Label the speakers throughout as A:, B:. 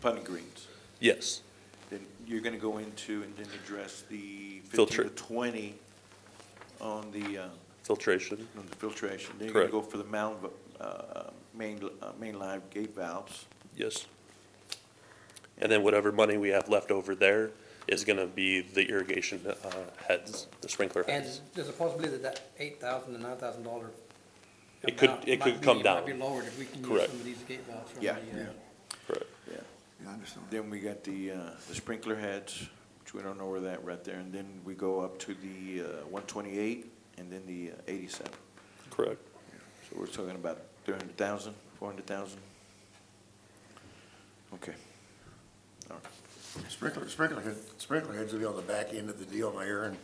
A: Putting greens.
B: Yes,
A: Then you're going to go into and then address the
B: Filter.
A: 15 to 20 on the, uh,
B: filtration,
A: on the filtration. Then you're going to go
B: Correct.
A: for the mound, va- uh, main, uh, main line gate valves.
B: yes. And then whatever money we have left over there is gonna be the irrigation uh, heads, the sprinkler
C: And
B: heads.
C: there's a possibility that that eight thousand to nine thousand dollar.
B: It could- it could come down.
C: Might be lowered if we can use
B: Correct.
C: some of these gate valves from the.
A: Yeah.
C: uh,
B: Correct.
A: Yeah.
D: Yeah, I understand.
A: Then we got the, uh, the sprinkler heads, which we don't know where that right there. And then we go up to the uh, 128 and then the uh, 87.
B: Correct.
A: So we're talking about 300,000, 400,000? Okay. All right.
D: Sprinkler, sprinkler head, sprinkler heads will be on the back end of the deal, Mayor, and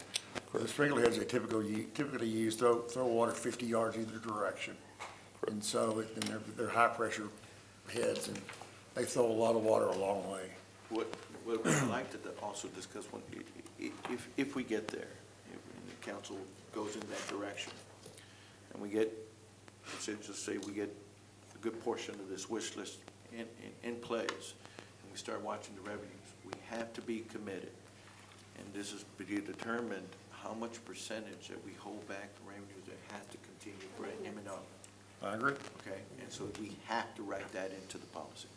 D: the sprinkler heads they typically, u- typically use, throw, throw water fifty yards either direction. And so, it- and they're, they're high-pressure heads, and they throw a lot of water a long way.
A: What, what I'd like to also discuss, when, i- i- if, if we get there, if the council goes in that direction, and we get, let's say, just say we get a good portion of this wish list in, in, in place, and we start watching the revenues, we have to be committed. And this is to be determined how much percentage that we hold back the revenues that has to continue for M and O
D: I agree.
A: okay? And so we have to write that into the policy,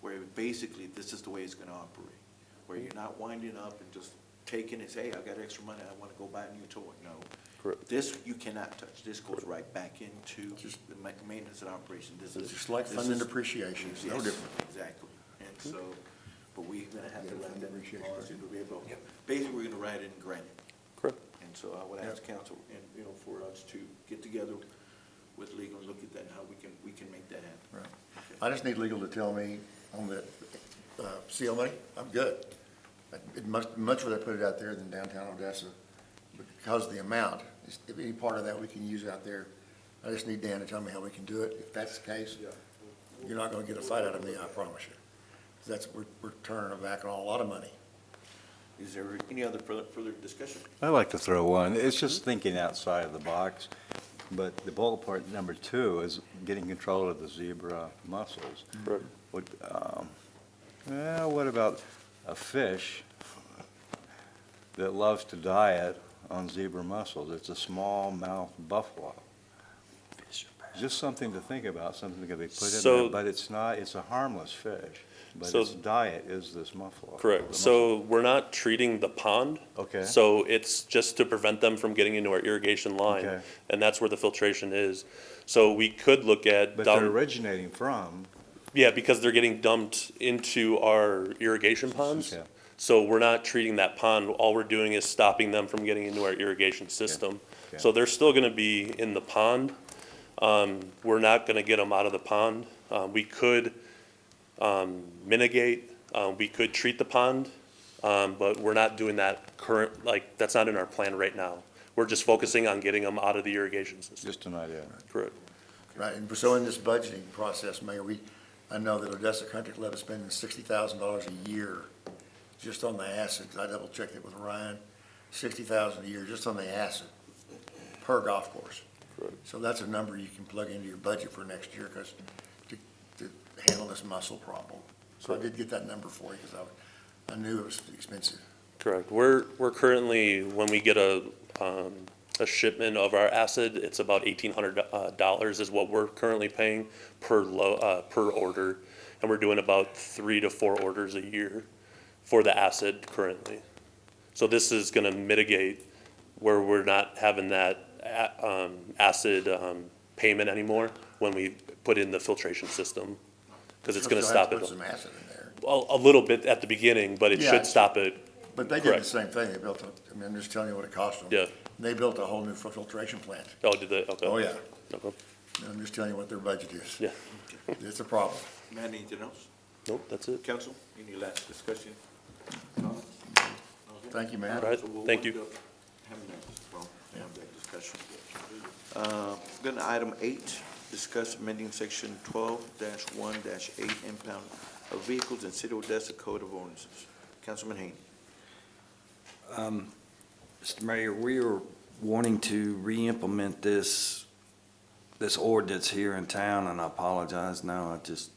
A: where basically, this is the way it's gonna operate, where you're not winding up and just taking and say, hey, I got extra money, I wanna go buy a new toy, no.
B: Correct.
A: This, you cannot touch, this goes right back into the ma- maintenance and operation, this is.
D: Just like
A: this
D: funding
A: is-
D: depreciation, it's no
A: Yes,
D: different.
A: Exactly, and so, but we're gonna have to write
D: Yeah,
A: that into the
D: depreciation.
A: policy to be able,
C: Yep.
A: basically, we're gonna write it in granite.
B: Correct.
A: And so I would ask council, and, you know, for us to get together with legal and look at that, and how we can, we can make that happen.
D: Right. I just need legal to tell me on the, uh, seal money, I'm good. I'd much, much rather put it out there than downtown Odessa because of the amount. It's- If any part of that we can use out there, I just need Dan to tell me how we can do it. If that's the case, you're not gonna get a fight out of me, I promise you. 'Cause that's, we're, we're turning our back on a lot of money.
A: Is there any other further, further discussion?
E: I like to throw one. It's
B: Mm-hmm.
E: just thinking outside of the box. But the bullet point number two is getting control of the zebra mussels.
B: Correct.
E: What, um, well, what about a fish that loves to diet on zebra mussels? It's a smallmouth buffalo. Just something to think about, something that could be put in
B: So-
E: there, but it's not, it's a harmless fish. But
B: So-
E: its diet is this muffalo. the
B: Correct.
E: mussel.
B: So we're not treating the pond.
E: Okay.
B: So it's just to prevent them from getting into our irrigation line.
E: Okay.
B: And that's where the filtration is. So we could look at,
E: But they're
B: dump-
E: originating from
B: yeah, because they're getting dumped into our irrigation ponds.
E: Okay.
B: So we're not treating that pond. All we're doing is stopping them from getting into our irrigation system.
E: Okay.
B: So they're still gonna be in the pond. Um, we're not gonna get them out of the pond. Uh, we could, um, mitigate, uh, we could treat the pond, um, but we're not doing that current, like, that's not in our plan right now. We're just focusing on getting them out of the irrigation system.
E: just an idea.
B: Correct.
D: Right, and so in this budgeting process, Mayor, we, I know that Odessa Country Club is spending sixty thousand dollars a year just on the acid, 'cause I double checked it with Ryan, sixty thousand a year just on the acid per golf course. So that's a number you can plug into your budget for next year, cause to, to handle this muscle problem. So I did get that number for you, cause I, I knew it was expensive.
B: Correct. We're, we're currently, when we get a, um, a shipment of our acid, it's about eighteen hundred, uh, dollars is what we're currently paying per lo, uh, per order. And we're doing about three to four orders a year for the acid currently. So this is gonna mitigate where we're not having that, a- um, acid, um, payment anymore when we put in the filtration system. Cause it's gonna
D: You'll have
B: stop
D: to
B: it,
D: Put some
B: a,
D: acid in there.
B: a little bit at the beginning, but it
D: Yeah,
B: should
D: it's-
B: stop it
D: But they did the
B: Correct.
D: same thing, they built, a- I mean, I'm just telling you what it cost them.
B: Yeah.
D: They built a whole new filtration plant.
B: Oh, Nou, did they? Okay.
D: Oh, yeah.
B: Okay.
D: I'm just telling you what their budget is.
B: Yeah.
D: It's a problem.
A: Matt, anything else?
B: Nope, that's it.
A: Council, any last discussion? Comments?
D: Thank you, man.
B: All right,
A: So we'll
B: thank
A: wind
B: you.
A: up having that- well, have that discussion. Uh, Then item eight, discuss amending section twelve one eight impound of vehicles in City of Odessa Code of Ordinances. Councilman Haynes.
F: Mr. Mayor, we are wanting to re-implement this, this ordinance here in town, and I apologize now, I just